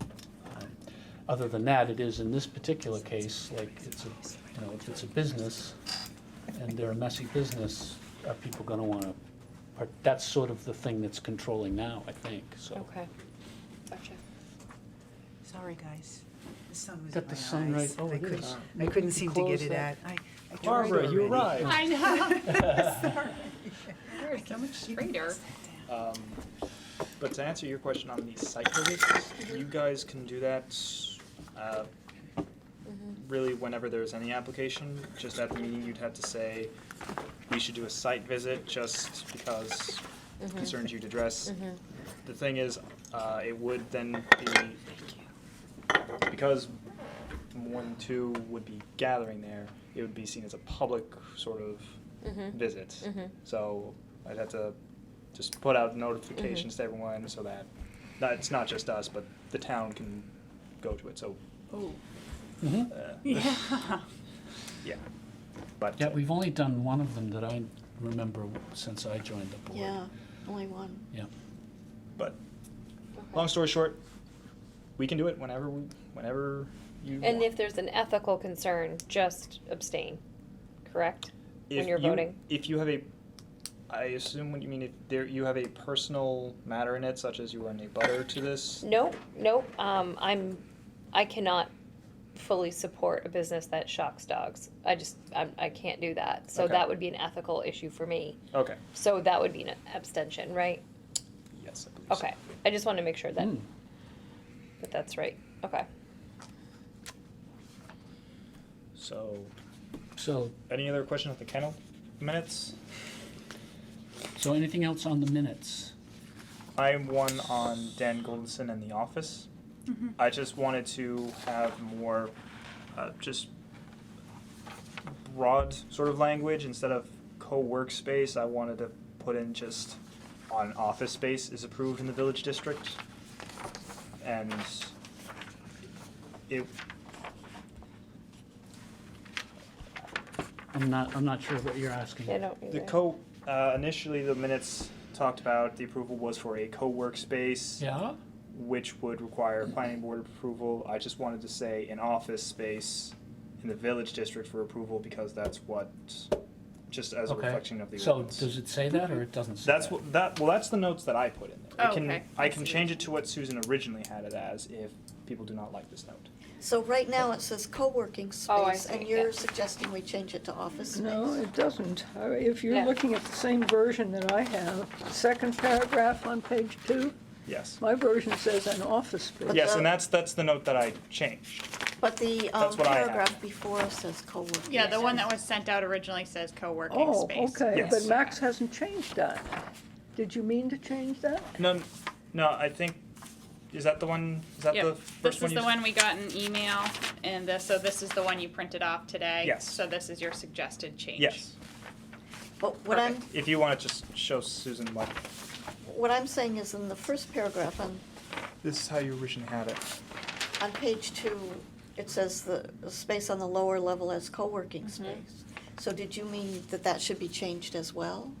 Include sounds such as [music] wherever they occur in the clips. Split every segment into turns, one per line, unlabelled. Uh, Other than that, it is in this particular case, like, it's a, you know, if it's a business and they're a messy business, are people gonna wanna, part- that's sort of the thing that's controlling now, I think, so.
Okay, gotcha.
Sorry, guys. The sun was
Got
in
the
my
sun right-
eyes.
oh,
I
it
couldn't-
is.
I couldn't seem to
Close
get it
that.
out. I- I tried
Barbara, you
[laughs]
already.
arrived.
I
[laughs]
[laughs]
know.
Sorry.
You're so much straighter.
Um, But to answer your question on the site visits, you guys can do that uh, really whenever there's any application. Just at the meeting, you'd have to say, we should do a site visit just because concerns you'd address. The thing is, uh, it would then be, because one, two would be gathering there, it would be seen as a public sort of visit. So I'd have to just put out notifications to everyone so that, not, it's not just us, but the town can go to it, so.
Oh,
Mhm.
uh,
yeah.
[laughs] Yeah, but.
Yeah, we've only done one of them that I remember since I joined the board.
Yeah, only one.
Yeah.
But, long story short, we can do it whenever, we whenever you
And
want.
if there's an ethical concern, just abstain, correct? when
If
you're
you-
voting.
If you have a, I assume what you mean, if there, you have a personal matter in it, such as you are a butter to this,
Nope, nope, um, I'm, I cannot fully support a business that shocks dogs. I just, I'm, I can't do that, so
Okay.
that would be an ethical issue for me.
okay,
So that would be an abstention, right?
yes, I believe so.
Okay, I just want to make sure that,
Hmm.
that that's right, okay.
So,
So,
any other questions on the kennel minutes?
so anything else on the minutes?
I'm one on Dan Goldson and The Office.
Mm-hmm.
I just wanted to have more, uh, just broad sort of language instead of co-work space. I wanted to put in just on office space is approved in the village district, and it
I'm not, I'm not sure what you're asking.
I don't either.
The co, uh, initially the minutes talked about the approval was for a co-workspace,
Yeah?
which would require planning board approval. I just wanted to say an office space in the village district for approval because that's what, just as a
Okay.
reflection of the
So
ordinance.
does it say that or it doesn't say
That's
that?
what, that, well, that's the notes that I put in there. I
Oh,
can-
okay.
I can change it to what Susan originally had it as if people do not like this note.
So right now it says co-working
Oh, I
space,
see,
and
yeah.
you're suggesting we change it to office space?
No, it doesn't. Uh, If
Yeah.
you're looking at the same version that I have, second paragraph on page two,
Yes.
my version says an office
But
space.
Yes,
the-
and that's, that's the note that I changed.
But the um,
That's what I have.
paragraph before says co-working.
Yeah, the one that was sent out originally says co-working
Oh,
space.
okay,
Yes.
but Max hasn't changed that. Did you mean to change that?
No, n- no, I think, is that the one, is that the
Yep,
first
this
one
is
you?
the one we got an email, and this, so this is the one you printed off today.
Yes.
So this is your suggested change.
Yes,
But what I'm,
if you want to just show Susan what.
what I'm saying is in the first paragraph on,
This is how you originally had it.
on page two, it says the the space on the lower level as co-working space. So did you mean that that should be changed as well?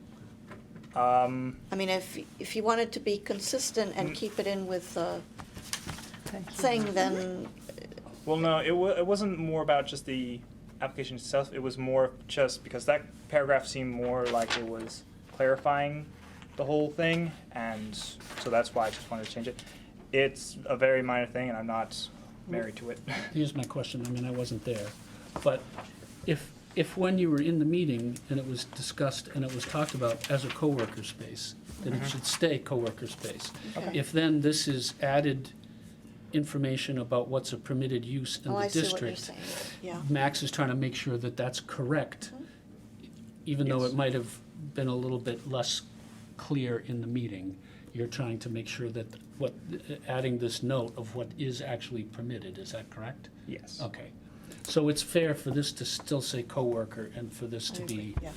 Um,
I mean, if, if you wanted to be consistent and
Mm.
keep it in with the
Thank you.
thing, then
well, no, it wa- it wasn't more about just the application itself, it was more just because that paragraph seemed more like it was clarifying the whole thing, and so that's why I just wanted to change it. It's a very minor thing, and I'm not married to it.
Here's my question, I mean, I wasn't there, but if, if when you were in the meeting and it was discussed and it was talked about as a coworker space, then it should stay coworker space.
Okay.
If then this is added information about what's a permitted use in
Oh,
the
I see what you're
district,
saying, yeah.
Max is trying to make sure that that's correct,
Mm-hmm.
even though it might have been a little bit less clear in the meeting. You're trying to make sure that what, adding this note of what is actually permitted, is that correct?
Yes.
Okay. So it's fair for this to still say coworker and for this to be,
Yeah.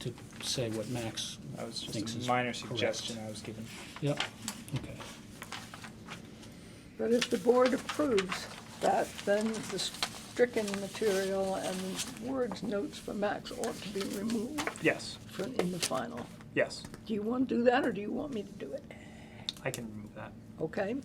to say what Max
[laughs] That was
thinks
just
is
a minor
correct.
suggestion I was given.
Yep, okay.
But if the board approves that, then the stricken material and words, notes for Max ought to be removed
Yes,
from- in the final.
yes,
Do you want to do that, or do you want me to do it?
I can remove that.
Okay,